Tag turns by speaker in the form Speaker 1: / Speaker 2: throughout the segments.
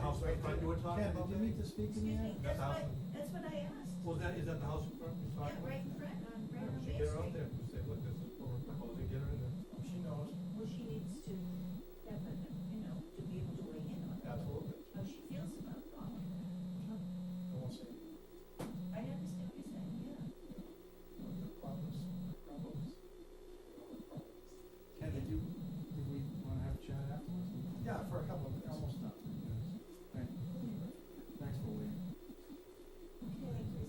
Speaker 1: house in front you were talking
Speaker 2: Ken,
Speaker 1: about?
Speaker 2: did you need to speak in the
Speaker 3: Excuse me,
Speaker 2: end?
Speaker 3: that's
Speaker 1: That's
Speaker 3: what,
Speaker 1: awesome.
Speaker 3: that's what I asked.
Speaker 1: Was that, is that the house in front you're
Speaker 3: Yeah,
Speaker 1: talking about?
Speaker 3: right in front, on, right on
Speaker 1: She
Speaker 3: Bay
Speaker 1: get her out
Speaker 3: Street.
Speaker 1: there, and say, look, this is what we're proposing, get her in there.
Speaker 4: Oh, She knows.
Speaker 3: Well, she needs to have a, you know, to be able to weigh in on
Speaker 1: Absolutely.
Speaker 3: how she feels about all of
Speaker 4: I
Speaker 3: that.
Speaker 4: won't say
Speaker 3: I understand what you're saying, yeah.
Speaker 4: the problems, the problems.
Speaker 2: Ken, did you, did we wanna have a chat afterwards?
Speaker 4: Yeah, for a couple of, almost nothing.
Speaker 2: Right. Thanks for waiting.
Speaker 3: Okay, is there anything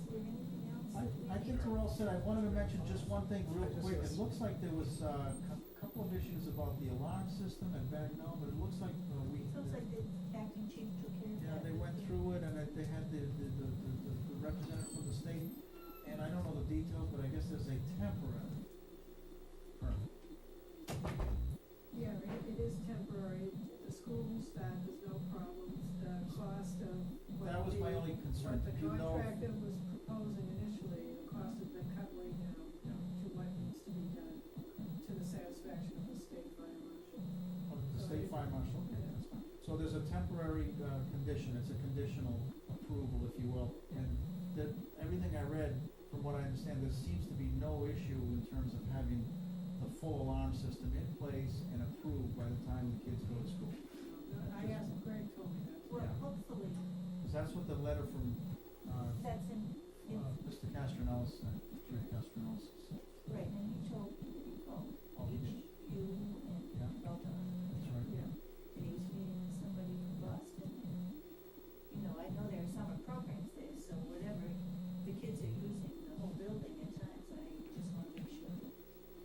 Speaker 3: else?
Speaker 2: I,
Speaker 3: that we-
Speaker 2: I think we're all set. I wanted to mention just one thing real quick. It looks like there was uh, a couple of issues about the alarm system and Bagnell, but it looks like uh, we,
Speaker 3: Sounds like the acting chief took care of
Speaker 2: yeah,
Speaker 3: that.
Speaker 2: they went through it and that they had the, the, the, the the representative from the state. And I don't know the details, but I guess there's a temporary permit.
Speaker 5: Yeah, it, it is temporary. The school staff has no problems. The cost of what
Speaker 2: That was my
Speaker 5: the,
Speaker 2: only
Speaker 5: what
Speaker 2: concern.
Speaker 5: the
Speaker 2: Did you know? if-
Speaker 5: contractor was proposing initially, the cost has been cut way down
Speaker 2: Yeah.
Speaker 5: to what needs to be done to the satisfaction of the state fire marshal.
Speaker 2: Oh, The state fire marshal, okay, that's fine. So there's a temporary, uh, condition, it's a conditional approval, if you will, and that, everything I read, from what I understand, there seems to be no issue in terms of having the full alarm system in place and approved by the time the kids go to school.
Speaker 5: Um, I asked Greg told me that.
Speaker 3: Well,
Speaker 2: Yeah.
Speaker 3: hopefully,
Speaker 2: Because that's what the letter from, uh,
Speaker 3: that's in, in,
Speaker 2: uh, Mr. Castronellis, uh, Chief Castronellis said.
Speaker 3: right, and he told people,
Speaker 2: Oh, he did.
Speaker 3: each, you
Speaker 2: Yeah.
Speaker 3: and Belton.
Speaker 2: That's right.
Speaker 5: Yeah.
Speaker 3: that he was meeting with somebody from Boston. and, You know, I know there are summer programs there, so whatever, the kids are using the whole building at times, I just wanna make sure that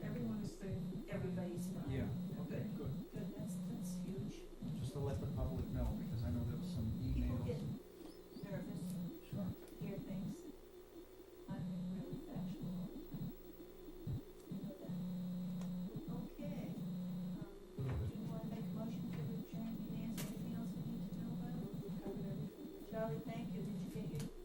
Speaker 5: Everyone is safe.
Speaker 3: everybody's fine.
Speaker 2: Yeah,
Speaker 3: Good,
Speaker 2: okay, good.
Speaker 3: good, that's, that's huge.
Speaker 2: Just to let the public know, because I know there was some
Speaker 3: People
Speaker 2: emails.
Speaker 3: get nervous,
Speaker 2: Sure.
Speaker 3: hear things. I'm really factual all the time. You know that. Okay, um, do you wanna make a motion to adjourn, Nancy, anything else we need to know about?
Speaker 5: We've covered everything.
Speaker 3: Charlie, thank you. Did you get your